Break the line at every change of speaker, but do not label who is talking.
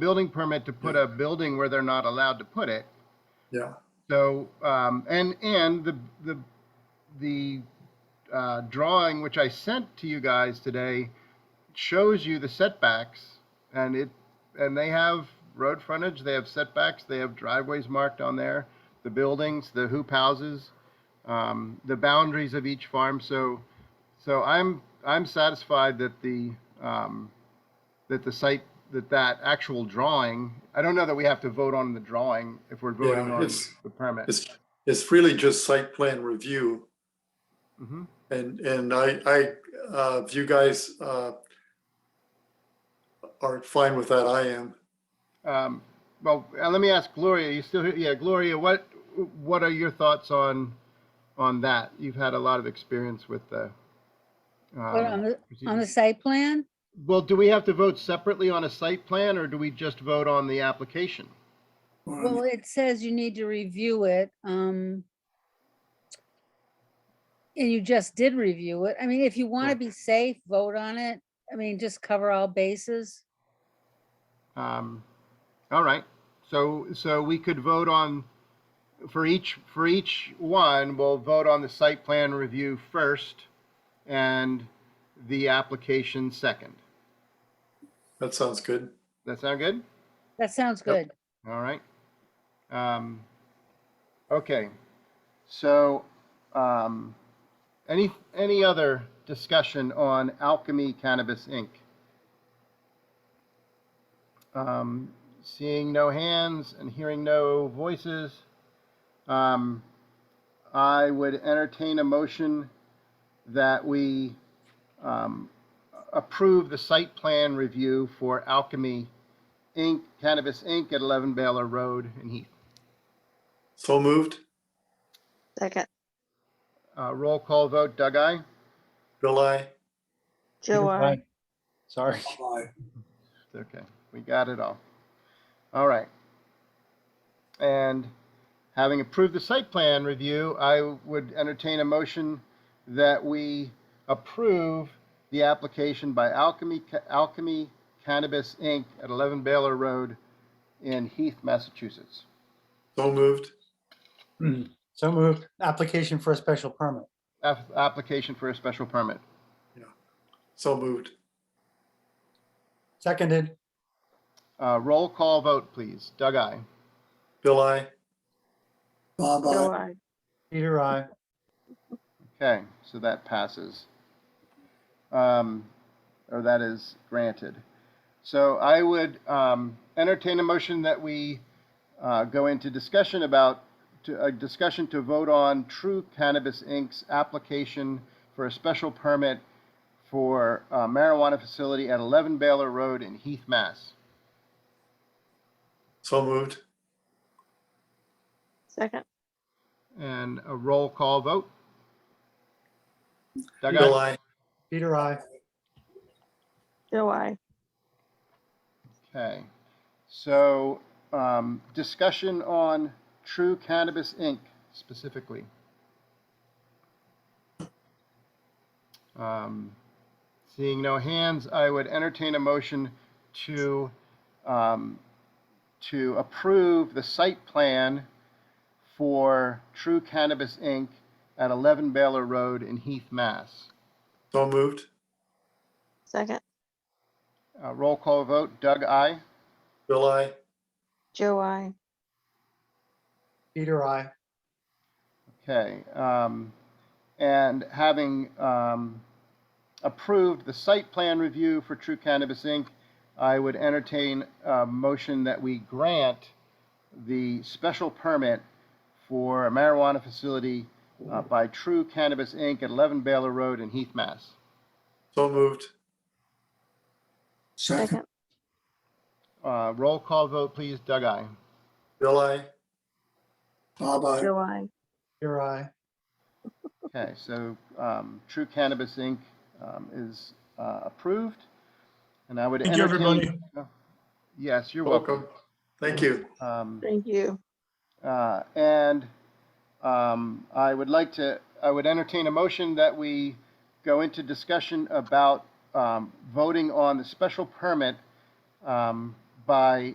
building permit to put a building where they're not allowed to put it.
Yeah,
So, um, and, and the, the, the, uh, drawing which I sent to you guys today shows you the setbacks and it, and they have road frontage, they have setbacks, they have driveways marked on there, the buildings, the hoop houses, um, the boundaries of each farm. So, so I'm, I'm satisfied that the, um, that the site, that that actual drawing, I don't know that we have to vote on the drawing if we're voting
Yeah,
on
it's-
the permit.
it's, it's really just site plan review.
Mhm.
And, and I, I, uh, if you guys, uh, are fine with that, I am.
Um, Well, uh, let me ask Gloria, you still here? Yeah, Gloria, what, what are your thoughts on, on that? You've had a lot of experience with the.
What,
um,
on the, on the
procedure.
site plan?
Well, do we have to vote separately on a site plan or do we just vote on the application?
Well, it says you need to review it, um. And you just did review it. I mean, if you want
Yeah.
to be safe, vote on it. I mean, just cover all bases.
Um, All right, so, so we could vote on, for each, for each one, we'll vote on the site plan review first and the application second.
That sounds good.
That sound good?
That sounds
Yep.
good.
All right. Um, okay. So, um, any, any other discussion on Alchemy Cannabis Inc.? Um, seeing no hands and hearing no voices, um, I would entertain a motion that we, um, approve the site plan review for Alchemy Inc., Cannabis Inc. at 11 Baylor Road in Heath.
So moved.
Second,
Uh, Roll call vote, Doug, aye?
Bill, I,
Joe, I,
Sorry. Okay, we got it all. All right. And having approved the site plan review, I would entertain a motion that we approve the application by Alchemy, Alchemy Cannabis Inc. at 11 Baylor Road in Heath, Massachusetts.
so moved.
So moved. Application for a special permit.
App- Application for a special permit.
So moved.
Seconded.
Uh, Roll call vote, please. Doug, aye?
Bill, I,
Joe, I,
Peter, I.
Okay, so that passes. Um, or that is granted. So I would, um, entertain a motion that we, uh, go into discussion about, to, a discussion to vote on True Cannabis Inc.'s application for a special permit for a marijuana facility at 11 Baylor Road in Heath, Mass.
so moved.
second,
And a roll call vote. Doug,
Bill,
aye?
I,
Peter, I.
Joe, I,
Okay, so, um, discussion on True Cannabis Inc. specifically. Um, Seeing no hands, I would entertain a motion to, um, to approve the site plan for True Cannabis Inc. at 11 Baylor Road in Heath, Mass.
so moved.
second,
Uh, roll call vote, Doug, aye?
Bill, I,
Joe, I,
Peter, I.
Okay, um, and having, um, approved the site plan review for True Cannabis Inc., I would entertain a motion that we grant the special permit for a marijuana facility uh, by True Cannabis Inc. at 11 Baylor Road in Heath, Mass.
so moved.
second,
Uh, roll call vote, please. Doug, aye.
Bill, I,
Joe, I,
Peter, I.
Okay, so um, True Cannabis Inc. um, is uh, approved, and I would
Thank you,
entertain. Oh, Yes, you're welcome.
welcome. Thank you.
Um,
thank you,
uh, And um, I would like to, I would entertain a motion that we go into discussion about um, voting on the special permit um, by